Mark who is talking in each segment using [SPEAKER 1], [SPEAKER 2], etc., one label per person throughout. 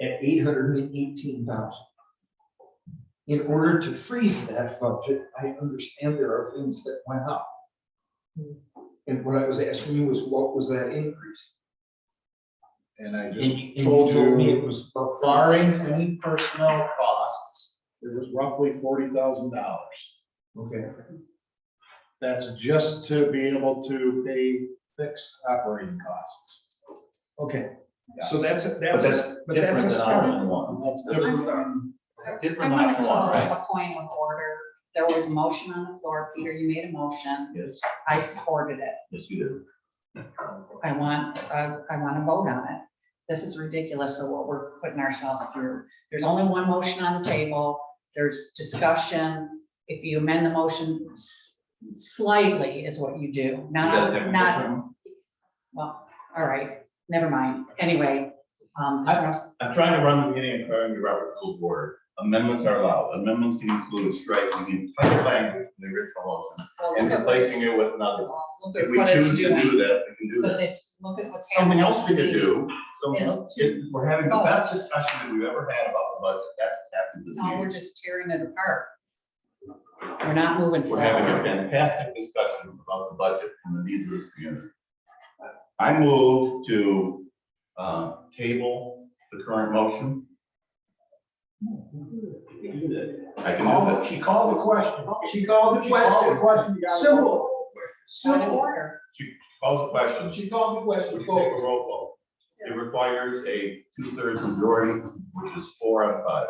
[SPEAKER 1] eight hundred and eighteen thousand. In order to freeze that budget, I understand there are things that went up. And what I was asking you was what was that increase?
[SPEAKER 2] And I
[SPEAKER 1] And-
[SPEAKER 2] just
[SPEAKER 1] and you
[SPEAKER 2] told
[SPEAKER 1] me It
[SPEAKER 2] you,
[SPEAKER 1] was about
[SPEAKER 2] barring any personnel costs, it was roughly forty thousand dollars.
[SPEAKER 1] Okay,
[SPEAKER 2] That's just to be able to pay fixed operating costs.
[SPEAKER 1] okay,
[SPEAKER 2] Yeah.
[SPEAKER 1] so that's, a-
[SPEAKER 3] But
[SPEAKER 1] that's,
[SPEAKER 3] that's
[SPEAKER 1] a- but
[SPEAKER 3] different
[SPEAKER 1] that's a
[SPEAKER 3] than
[SPEAKER 1] start.
[SPEAKER 3] option one.
[SPEAKER 2] And That's different than,
[SPEAKER 3] Different
[SPEAKER 4] I'm
[SPEAKER 3] than
[SPEAKER 4] gonna
[SPEAKER 3] option
[SPEAKER 4] call
[SPEAKER 3] one, right?
[SPEAKER 4] a coin with order. There was a motion on the floor. Peter, you made a motion.
[SPEAKER 3] Yes,
[SPEAKER 4] I supported it.
[SPEAKER 3] yes, you do.
[SPEAKER 4] I want, uh, I want to vote on it. This is ridiculous of what we're putting ourselves through. There's only one motion on the table. There's discussion. If you amend the motion s- slightly is what you do, not, not, well, all right, never mind. Anyway, um,
[SPEAKER 3] I'm trying to run the meeting according to Robert Rules of Order. Amendments are allowed. Amendments can include striking the entire language from the original motion
[SPEAKER 4] well,
[SPEAKER 3] and
[SPEAKER 4] look at
[SPEAKER 3] replacing
[SPEAKER 4] this.
[SPEAKER 3] it with another. one.
[SPEAKER 4] Look at
[SPEAKER 3] If we
[SPEAKER 4] what it's
[SPEAKER 3] choose to
[SPEAKER 4] doing.
[SPEAKER 3] do that, we can do
[SPEAKER 4] But
[SPEAKER 3] that.
[SPEAKER 4] it's, look at what's happening.
[SPEAKER 3] Something else we could do, so
[SPEAKER 4] Is Oh.
[SPEAKER 3] we're having the best discussion that we've ever had about the budget. That's happened to the
[SPEAKER 4] No,
[SPEAKER 3] meeting.
[SPEAKER 4] we're just tearing it apart. We're not moving
[SPEAKER 3] We're having a
[SPEAKER 4] forward.
[SPEAKER 3] fantastic discussion about the budget and the needs of this community. I move to uh, table the current motion. I can do that.
[SPEAKER 5] She called the question.
[SPEAKER 1] She called the
[SPEAKER 5] She called the
[SPEAKER 1] question,
[SPEAKER 5] question. you gotta-
[SPEAKER 1] simple,
[SPEAKER 4] Point of
[SPEAKER 1] simple,
[SPEAKER 4] order.
[SPEAKER 3] She calls the question.
[SPEAKER 1] she called the
[SPEAKER 3] We
[SPEAKER 1] question,
[SPEAKER 3] can take a roll call. It requires a two-thirds majority, which is four out of five.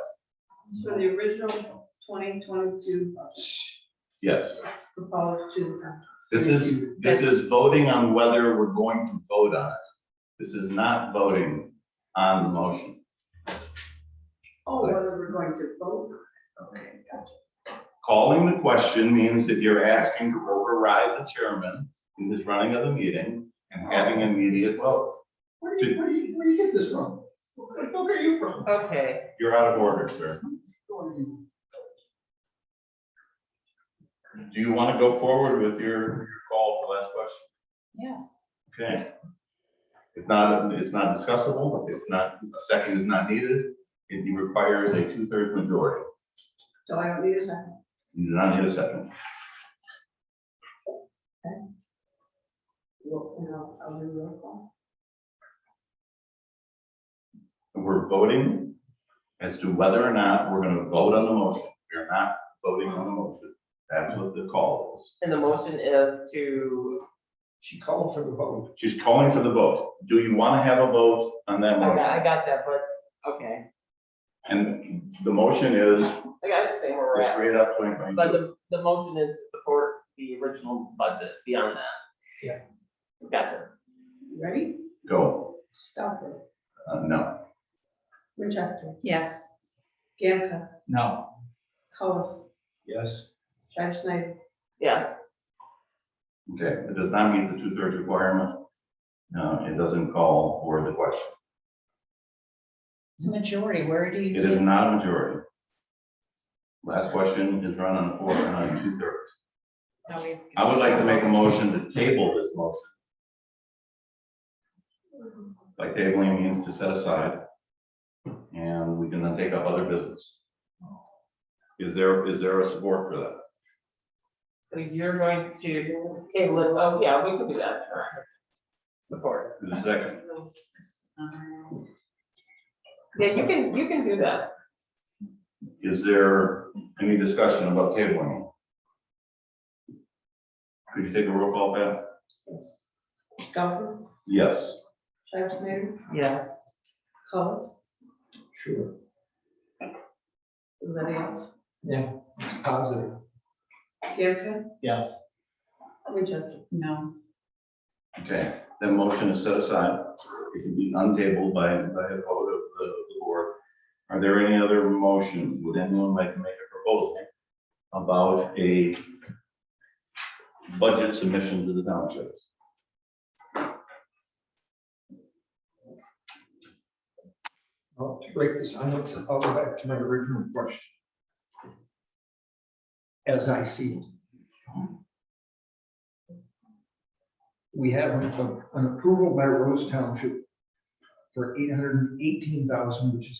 [SPEAKER 6] It's for the original twenty twenty-two
[SPEAKER 3] Yes,
[SPEAKER 6] proposed to.
[SPEAKER 3] this is, this is voting on whether we're going to vote on it. This is not voting on the motion.
[SPEAKER 6] Oh, whether we're going to vote.
[SPEAKER 3] Calling the question means that you're asking to override the chairman in his running of the meeting and having immediate vote.
[SPEAKER 1] where do you, where do you, where do you get this from? Where the fuck are you from?
[SPEAKER 6] Okay.
[SPEAKER 3] You're out of order, sir. Do you want to go forward with your, your call for last question?
[SPEAKER 4] Yes.
[SPEAKER 3] Okay. It's not, it's not discussable, it's not, a second is not needed, it requires a two-thirds majority.
[SPEAKER 6] So I don't need a second.
[SPEAKER 3] You do not need a second.
[SPEAKER 6] Well, you know, I'll do roll call.
[SPEAKER 3] We're voting as to whether or not we're going to vote on the motion. We're not voting on the motion. That's what the call is.
[SPEAKER 7] And the motion is to,
[SPEAKER 1] She called for the vote.
[SPEAKER 3] She's calling for the vote. Do you want to have a vote on that
[SPEAKER 7] I got,
[SPEAKER 3] motion?
[SPEAKER 7] I got that, but, okay,
[SPEAKER 3] And the motion is
[SPEAKER 7] I got to say where we're at.
[SPEAKER 3] straight up twenty
[SPEAKER 7] But
[SPEAKER 3] twenty-two.
[SPEAKER 7] the, the motion is to support the original budget beyond that.
[SPEAKER 1] Yeah.
[SPEAKER 7] Gotcha.
[SPEAKER 6] Ready?
[SPEAKER 3] Go.
[SPEAKER 6] Stover,
[SPEAKER 3] Uh, No.
[SPEAKER 6] Winchester,
[SPEAKER 4] Yes.
[SPEAKER 6] Gamka,
[SPEAKER 1] No.
[SPEAKER 6] Collis,
[SPEAKER 1] Yes.
[SPEAKER 6] Travis Snyder,
[SPEAKER 7] Yes,
[SPEAKER 3] Okay. It does not meet the two-thirds requirement. No, it doesn't call for the question.
[SPEAKER 4] It's a majority. Where do you
[SPEAKER 3] It is
[SPEAKER 4] get?
[SPEAKER 3] not a majority. Last question is run on four and on two-thirds.
[SPEAKER 4] no, we-
[SPEAKER 3] I would like to make a motion to table this motion. By tabling means to set aside. And we can then take up other business. Is there, is there a support for that?
[SPEAKER 7] so you're going to table it, oh, yeah, we can do that, sure. Support.
[SPEAKER 3] Is there a second?
[SPEAKER 4] Um,
[SPEAKER 7] Yeah, you can, you can do that.
[SPEAKER 3] Is there any discussion about tabling? Could you take a roll call, Pat?
[SPEAKER 6] Stover,
[SPEAKER 3] Yes.
[SPEAKER 6] Travis Snyder,
[SPEAKER 7] Yes.
[SPEAKER 6] Collis,
[SPEAKER 1] Sure,
[SPEAKER 6] anybody else?
[SPEAKER 1] it's positive.
[SPEAKER 6] Gamka,
[SPEAKER 5] Yes.
[SPEAKER 6] Winchester.
[SPEAKER 4] No.
[SPEAKER 3] Okay, that motion is set aside. It can be untabled by, by a vote of the, the board. Are there any other motions? Would anyone like to make a proposal about a budget submission to the township?
[SPEAKER 1] Well, to break the silence, I'll go back to my original question. As I see it. We have an an approval by Rose Township for eight hundred and eighteen thousand, which is